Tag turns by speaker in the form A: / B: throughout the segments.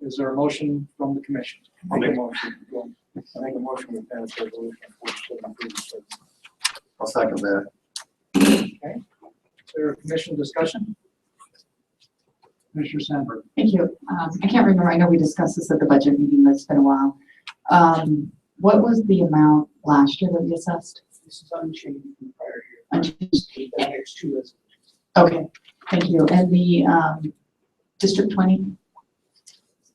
A: Is there a motion from the commission?
B: I'll make-
A: motion. Go on. I make a motion to pass resolution forty-seven thirty-six.
B: I'll second that.
A: Is there a commission discussion? Commissioner Sandberg.
C: Thank you. Um, I can't remember, I know we discussed this at the budget meeting, but it's been a while. Um, what was the amount last year that we assessed?
A: This is unchanged from the prior year.
C: Unchanged.
A: The next two is.
C: Okay, thank you. And the, um, District twenty?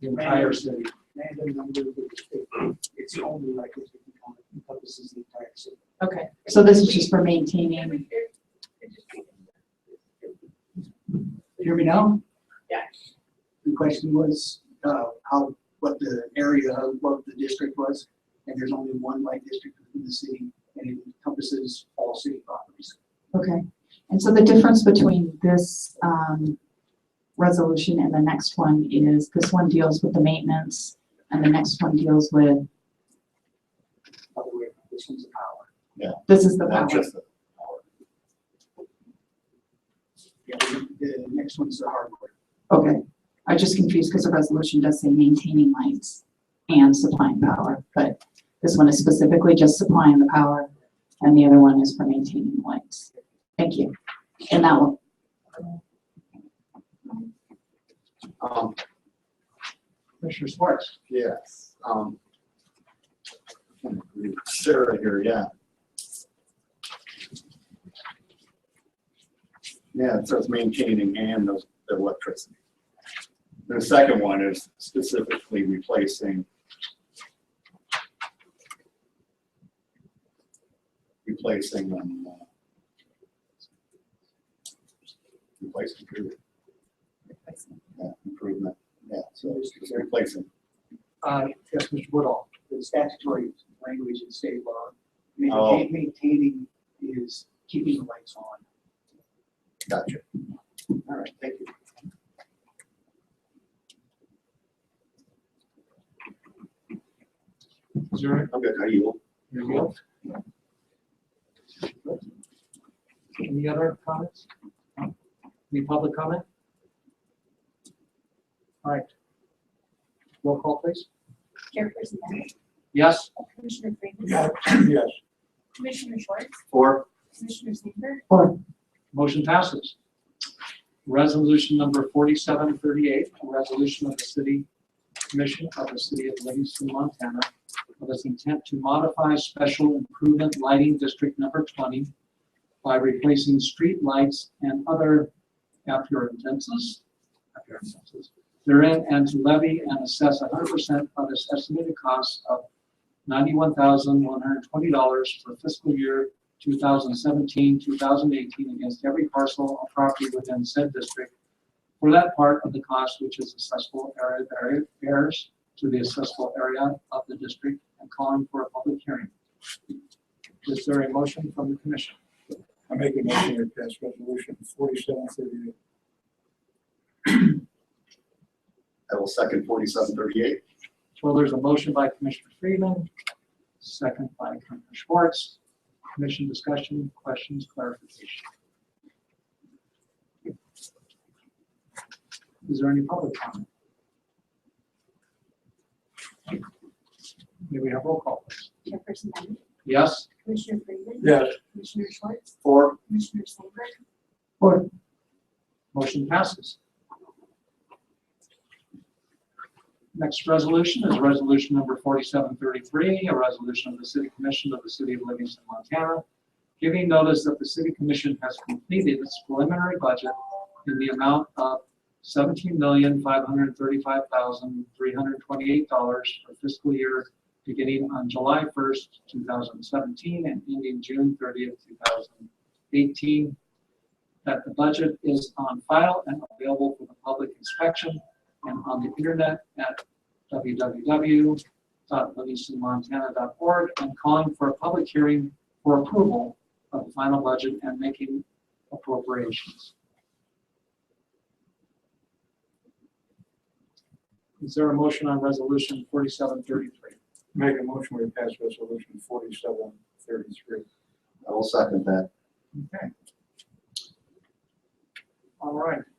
A: The entire city. Random number of the state. It's only like if you count it encompasses the entire city.
C: Okay. So this is just for maintaining,
A: Hear me now?
D: Yeah.
A: The question was, uh, how, what the area of what the district was, and there's only one light district in the city, and it encompasses all city properties.
C: okay. And so the difference between this, um, resolution and the next one is this one deals with the maintenance and the next one deals with,
A: By the way, this one's a power.
C: this is the
B: Not
C: power.
B: just the power.
A: Yeah, the, the next one's the hardware.
C: Okay, I was just confused because the resolution does say maintaining lights and supplying power, but this one is specifically just supplying the power, and the other one is for maintaining lights. Thank you. And that one,
B: Um,
A: Commissioner Sparks.
B: yes, um. Sarah here, yeah. Yeah, it says maintaining and the the electricity. The second one is specifically replacing. Replacing them. uh, Replacing, period. Yeah, improvement, yeah, so it's just replacing.
A: Uh, yes, Mr. Woodall. The statutory language in state law,
B: Oh.
A: maintain- maintaining is keeping the lights on.
B: Gotcha.
A: All right, thank you. Is there
B: I'm good. How are you?
A: Anything else? Any other comments? Any public comment? All right. Roll call, please.
D: Chairperson Bennett,
A: Yes?
D: Commissioner Freeman.
B: Yes.
D: Commissioner Schwartz,
B: Four.
D: Commissioner Sandberg,
C: or,
A: Motion passes. Resolution number forty-seven thirty-eight, a resolution of the city commission of the city of Livingston, Montana, with its intent to modify special improvement lighting district number twenty by replacing street lights and other appurtenances, appurtenances therein, and to levy and assess hundred percent of its estimated cost of ninety-one thousand one hundred twenty dollars for fiscal year 2017, 2018 against every parcel of property within said district for that part of the cost which is assessable area, area, heirs to the assessable area of the district and calling for a public hearing. Is there a motion from the commission?
E: I make a motion to pass resolution forty-seven thirty-eight.
B: I will second forty-seven thirty-eight.
A: Well, there's a motion by Commissioner Freeman, second by Commissioner Schwartz. Commission discussion, questions, clarification. Is there any public comment? May we have roll call, please?
D: Chairperson Bennett,
A: Yes?
D: Commissioner Freeman.
E: Yes.
D: Commissioner Schwartz,
B: Four.
D: Commissioner Sandberg,
C: or,
A: Motion passes. Next resolution is resolution number 4733, a resolution of the City Commission of the City of Livingston, Montana, giving notice that the City Commission has completed its preliminary budget in the amount of $17,535,328 for fiscal year beginning on July 1st, 2017 and ending June 30th, 2018, that the budget is on file and available for the public inspection and on the internet at www.livingstonmontana.org and calling for a public hearing for approval of the final budget and making appropriations. Is there a motion on resolution forty-seven thirty-three?
E: Make a motion to pass resolution forty-seven thirty-three.
B: I will second that.
A: Okay. All right,